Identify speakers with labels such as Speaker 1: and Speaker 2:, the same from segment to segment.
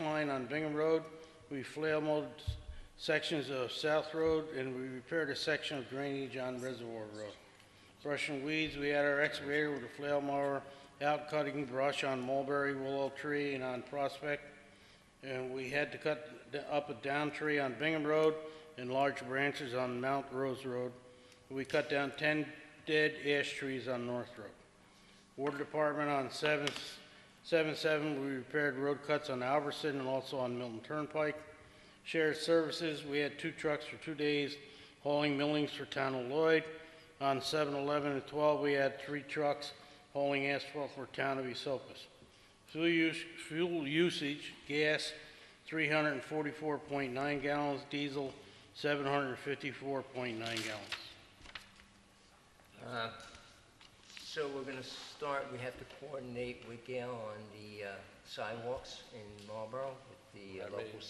Speaker 1: line on Bingham Road, we flail mowed sections of South Road, and we repaired a section of drainage on Reservoir Road. Brushing weeds, we had our excavator with a flail mower out cutting brush on Mulberry Willow Tree and on Prospect. And we had to cut d- up a down tree on Bingham Road and large branches on Mount Rose Road. We cut down 10 dead ash trees on North Road. Water Department on 7th 7/7, we repaired road cuts on Alverson and also on Milton Turnpike. Shared Services, we had two trucks for two days hauling millings for Town of Lloyd. On 7/11 and 12, we had three trucks hauling asphalt for Town of Esopus. Fuel use- fuel usage, gas, 344.9 gallons, diesel, 754.9 gallons.
Speaker 2: Uh, So we're going to start, we have to coordinate with Gail on the uh, sidewalks in Marlboro with the uh,
Speaker 3: I
Speaker 2: local
Speaker 3: mean-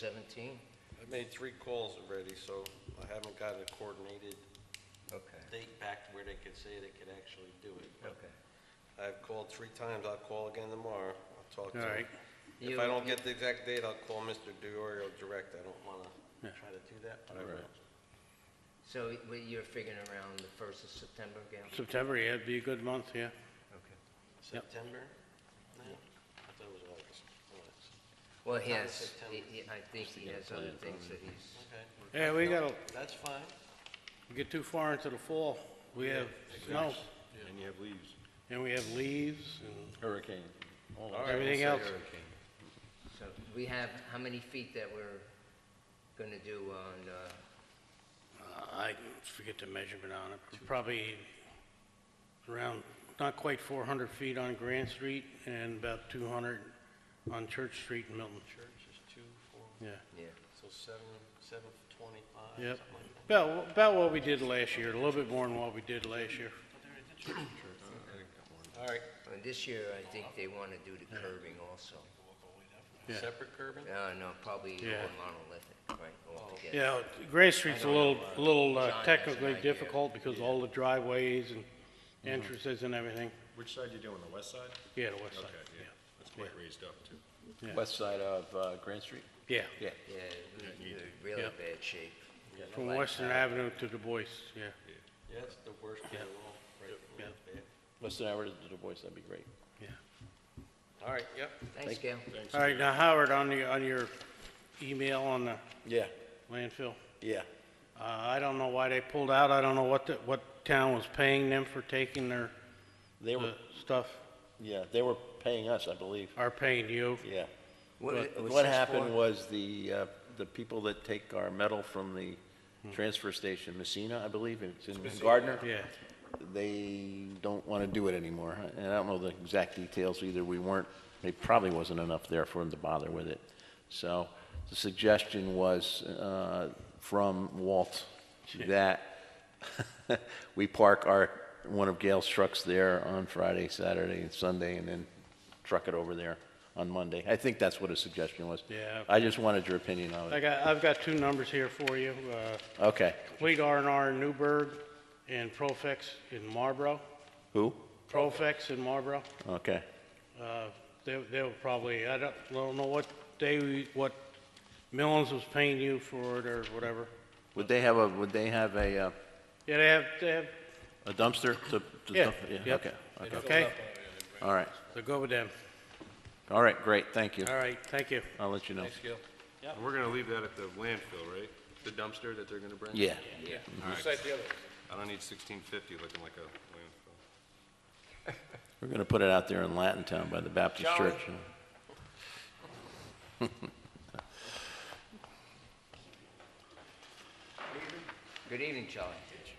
Speaker 2: 17.
Speaker 3: I made three calls already, so I haven't got a coordinated
Speaker 2: Okay,
Speaker 3: date back where they could say they could actually do it. But
Speaker 2: okay.
Speaker 3: I've called three times, I'll call again tomorrow, I'll talk to
Speaker 1: All
Speaker 3: him.
Speaker 1: right.
Speaker 3: If
Speaker 2: You-
Speaker 3: I don't get the exact date, I'll call Mr. Diorio direct, I don't wanna
Speaker 1: Yeah.
Speaker 3: try to do that, but I will.
Speaker 2: So we- you're figuring around the 1st of September, Gail?
Speaker 1: September, yeah, it'd be a good month, yeah.
Speaker 2: Okay.
Speaker 3: September? No, I thought it was August. August.
Speaker 2: Well, he
Speaker 3: Not in
Speaker 2: has,
Speaker 3: September.
Speaker 2: he- he- I think he has other things that he's,
Speaker 3: Okay,
Speaker 1: Yeah, we gotta
Speaker 3: that's fine.
Speaker 1: get too far into the fall. We have snow,
Speaker 4: And you have leaves.
Speaker 1: and we have leaves,
Speaker 4: Hurricane. All
Speaker 1: and everything else.
Speaker 2: so we have, how many feet that we're going to do on, uh,
Speaker 1: Uh, I forget the measurement on it, but probably around, not quite 400 feet on Grant Street and about 200 on Church Street in Milton.
Speaker 3: Church is two, four,
Speaker 1: Yeah,
Speaker 2: yeah,
Speaker 3: so seven, seven twenty-five, something
Speaker 1: Yep.
Speaker 3: like that.
Speaker 1: about, about what we did last year, a little bit more than what we did last year.
Speaker 3: All right,
Speaker 2: Uh, this year, I think they want to do the curving also.
Speaker 1: Yeah.
Speaker 3: separate curbing?
Speaker 2: No, no, probably
Speaker 1: Yeah.
Speaker 2: all monolithic, right, altogether.
Speaker 1: Yeah, Grant Street's a little, a little
Speaker 2: John
Speaker 1: uh,
Speaker 2: has an
Speaker 1: technically
Speaker 2: idea.
Speaker 1: difficult because all the driveways and entrances and everything.
Speaker 5: Which side you doing, the west side?
Speaker 1: Yeah, the west side,
Speaker 5: Okay, yeah, that's quite raised up too.
Speaker 1: Yeah.
Speaker 4: West side of uh, Grand Street?
Speaker 1: yeah.
Speaker 4: Yeah.
Speaker 2: Yeah, we- we're really
Speaker 1: Yeah.
Speaker 2: bad shape.
Speaker 1: From Western Avenue to Du Bois, yeah.
Speaker 3: Yeah, that's the worst of
Speaker 1: Yeah.
Speaker 3: all, right?
Speaker 1: Yeah.
Speaker 3: Yeah.
Speaker 4: Less than hour to Du Bois, that'd be great.
Speaker 3: All right, yep.
Speaker 2: Thanks, Gail.
Speaker 1: All right, now Howard, on the, on your email on the
Speaker 4: Yeah,
Speaker 1: landfill,
Speaker 4: yeah.
Speaker 1: uh, I don't know why they pulled out, I don't know what, the- what town was paying them for taking their,
Speaker 4: They were,
Speaker 1: uh, stuff,
Speaker 4: yeah, they were paying us, I believe,
Speaker 1: are paying you.
Speaker 4: yeah.
Speaker 2: What-
Speaker 4: But
Speaker 2: what's
Speaker 4: What
Speaker 2: this
Speaker 4: happened
Speaker 2: for?
Speaker 4: was the, uh, the people that take our metal from the transfer station, Messina, I believe, Hmm. it's in Gardner.
Speaker 1: Yeah,
Speaker 4: they don't want to do it anymore. And I don't know the exact details either. We weren't, there probably wasn't enough there for them to bother with it. So the suggestion was uh, from Walt that we park our, one of Gail's trucks there on Friday, Saturday, and Sunday, and then truck it over there on Monday. I think that's what his suggestion was.
Speaker 1: Yeah.
Speaker 4: I just wanted your opinion on
Speaker 1: I
Speaker 4: it.
Speaker 1: got, I've got two numbers here for you, uh,
Speaker 4: Okay.
Speaker 1: Complete R and R in Newburgh and Profex in Marlboro,
Speaker 4: Who?
Speaker 1: Profex in Marlboro.
Speaker 4: Okay.
Speaker 1: Uh, They, they were probably, I don't, I don't know what they, what Millens was paying you for it or whatever.
Speaker 4: Would they have a, would they have a uh,
Speaker 1: Yeah, they have, they have,
Speaker 4: a dumpster to? to
Speaker 1: yeah,
Speaker 4: dump-
Speaker 1: yeah.
Speaker 4: Okay. Okay.
Speaker 1: Okay,
Speaker 4: All right,
Speaker 1: so go with them.
Speaker 4: all right, great, thank you.
Speaker 1: All right, thank you.
Speaker 4: I'll let you know.
Speaker 3: Thanks, Gil.
Speaker 5: And we're gonna leave that at the landfill, right? The dumpster that they're gonna bring?
Speaker 4: Yeah,
Speaker 5: Alright.
Speaker 3: Just like the other.
Speaker 5: I don't need sixteen fifty looking like a landfill.
Speaker 4: we're gonna put it out there in Latin Town by the Baptist
Speaker 3: Shall we?
Speaker 4: Church.
Speaker 2: Good evening, Charlie.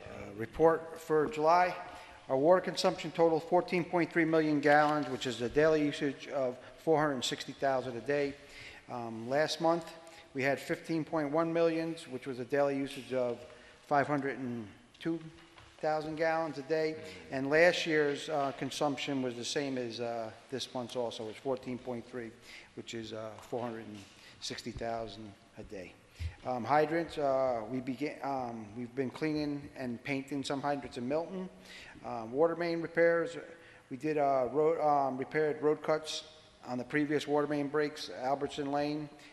Speaker 6: Uh, Report for July, our water consumption totaled 14.3 million gallons, which is a daily usage of 460,000 a day. Um, Last month, we had 15.1 millions, which was a daily usage of 502,000 gallons a day. And last year's uh, consumption was the same as uh, this month's also, it's 14.3, which is uh, 460,000 a day. Um, hydrants, uh, we begin, um, we've been cleaning and painting some hydrants in Milton. Um, water main repairs, we did, uh, road, um, repaired road cuts on the previous water main breaks, Albertson Lane.